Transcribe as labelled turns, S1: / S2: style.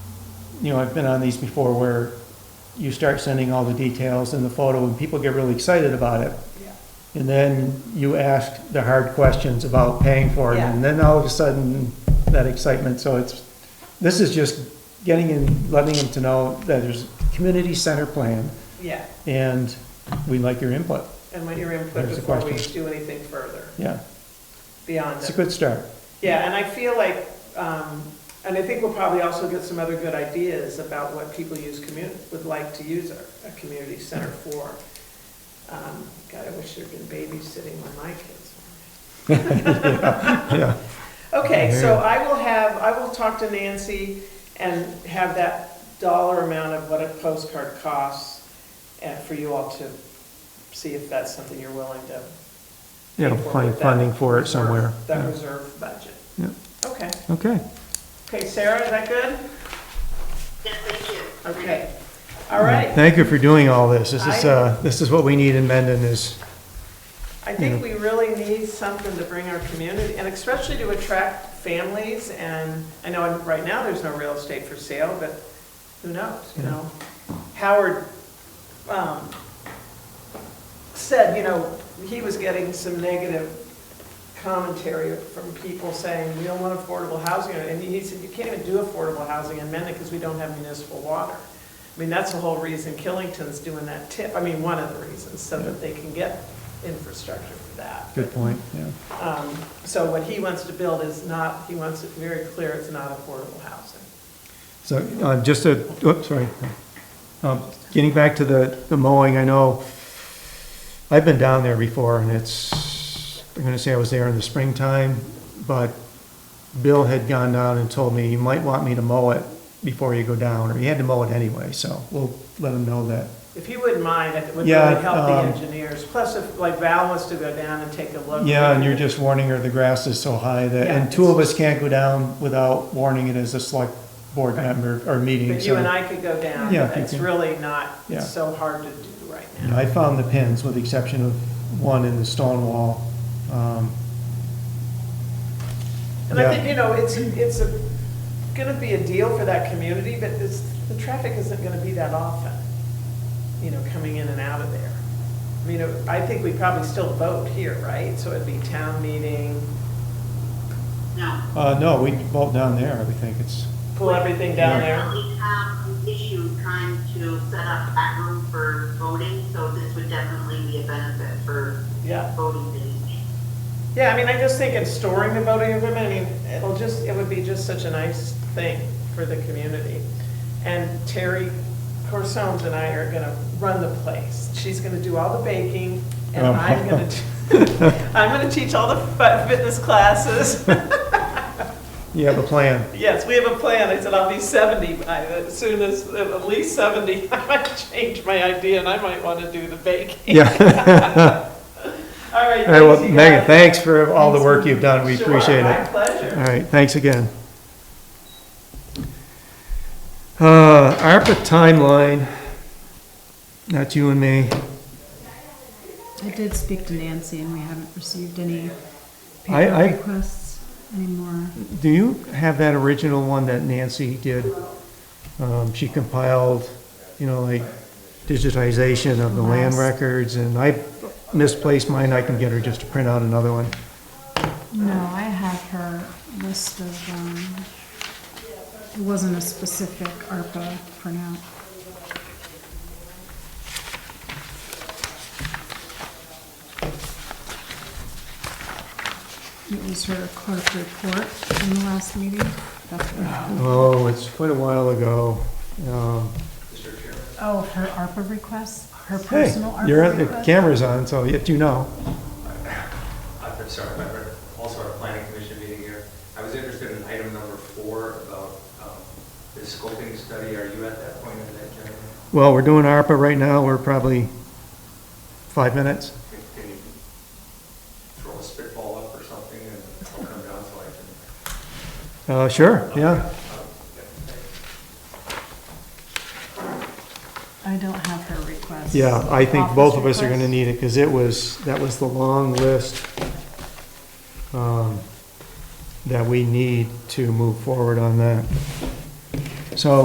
S1: you know, I've been on these before where you start sending all the details and the photo and people get really excited about it.
S2: Yeah.
S1: And then you ask the hard questions about paying for it and then all of a sudden that excitement, so it's, this is just getting in, letting them to know that there's a community center plan
S2: Yeah,
S1: and we like your input,
S2: and want your input
S1: There's a
S2: before we
S1: question.
S2: do anything further
S1: yeah,
S2: beyond
S1: it's a
S2: that.
S1: good start.
S2: Yeah, and I feel like, um, and I think we'll probably also get some other good ideas about what people use community, would like to use a, a community center for. Um, God, I wish there'd been babysitting when my kids
S1: Yeah,
S2: were. Okay, so
S1: Yeah.
S2: I will have, I will talk to Nancy and have that dollar amount of what a postcard costs and for you all to see if that's something you're willing to
S1: you know,
S2: pay for
S1: find
S2: with that
S1: funding for it
S2: reserve-
S1: somewhere.
S2: That reserve budget.
S1: Yeah.
S2: Okay,
S1: Okay.
S2: okay, Sarah, is that good?
S3: Yes, thank you.
S2: Okay, all right.
S1: Thank you for doing all this. This is,
S2: I-
S1: uh, this is what we need in Mendon is,
S2: I think we really need something to bring our community, and especially to attract families, and I know right now there's no real estate for sale, but who knows, you know? Howard um, said, you know, he was getting some negative commentary from people saying, we don't want affordable housing, and he said, you can't even do affordable housing in Mendon because we don't have municipal water. I mean, that's the whole reason Killington's doing that tip, I mean, one of the reasons, so that they can get infrastructure for that.
S1: good point, yeah.
S2: Um, So what he wants to build is not, he wants it very clear, it's not affordable housing.
S1: So, uh, just a, oops, sorry. Um, Getting back to the, the mowing, I know, I've been down there before, and it's, I'm gonna say I was there in the springtime, but Bill had gone down and told me, you might want me to mow it before you go down, or he had to mow it anyway, so we'll let him know that.
S2: If he wouldn't mind, it would really
S1: Yeah,
S2: help the
S1: um,
S2: engineers. Plus, if, like Val wants to go down and take a look.
S1: Yeah, and you're just warning her the grass is so high that,
S2: Yeah.
S1: and two of us can't go down without warning it as a select board member or meeting,
S2: But you and
S1: so.
S2: I could go down.
S1: Yeah, if you
S2: It's
S1: can.
S2: really not,
S1: Yeah.
S2: it's so hard to do right now.
S1: I found the pins, with the exception of one in the stone wall. Um,
S2: And I
S1: Yeah.
S2: think, you know, it's, it's a, gonna be a deal for that community, but this, the traffic isn't gonna be that often, you know, coming in and out of there. I mean, I think we probably still vote here, right? So it'd be town meeting,
S3: No.
S1: Uh, no, we vote down there, I would think it's,
S2: pull everything down there.
S3: Definitely have an issue trying to set up that room for voting, so this would definitely be a benefit for
S2: Yeah.
S3: voting days.
S2: Yeah, I mean, I just think in storing the voting equipment, I mean, it'll just, it would be just such a nice thing for the community. And Terry Corsones and I are gonna run the place. She's gonna do all the baking, and
S1: Oh.
S2: I'm gonna, do- I'm gonna teach all the fi- fitness classes.
S1: you have a plan.
S2: Yes, we have a plan. I said, I'll be 70 by, the- as soon as, at least 70. I might change my idea, and I might wanna do the baking.
S1: Yeah.
S2: All right,
S1: All right, well,
S2: thanks, you
S1: Megan,
S2: guys.
S1: thanks for all the work you've done, we
S2: Sure,
S1: appreciate
S2: My
S1: it.
S2: pleasure.
S1: All right, thanks again. Uh, ARPA timeline, not you and me.
S4: I did speak to Nancy and we haven't received any
S1: I-
S4: paper
S1: I-
S4: requests anymore.
S1: Do you have that original one that Nancy did? Um, she compiled, you know, like digitization of the land
S4: Yes.
S1: records, and I misplaced mine, I can get her just to print out another one.
S4: No, I have her list of, um, it wasn't a specific ARPA printout. It was her clerk report from the last meeting. That's what I have.
S1: Oh, it's quite a while ago. Um,
S4: Oh, her ARPA requests, her
S1: Hey,
S4: personal ARPA
S1: you're on, the
S4: requests?
S1: camera's on, so if you know.
S5: I've been, sorry, I've been also our planning commission meeting here. I was interested in item number four about um, the scoping study. Are you at that point of that, Jeremy?
S1: Well, we're doing ARPA right now, we're probably five minutes.
S5: Can- Can you throw a spitball up or something and I'll come down so I can?
S1: Uh, sure, yeah.
S5: Um,
S4: I don't have her request.
S1: Yeah, I think both of us are
S4: Office
S1: gonna
S4: request.
S1: need it, because it was, that was the long list um, that we need to move forward on that.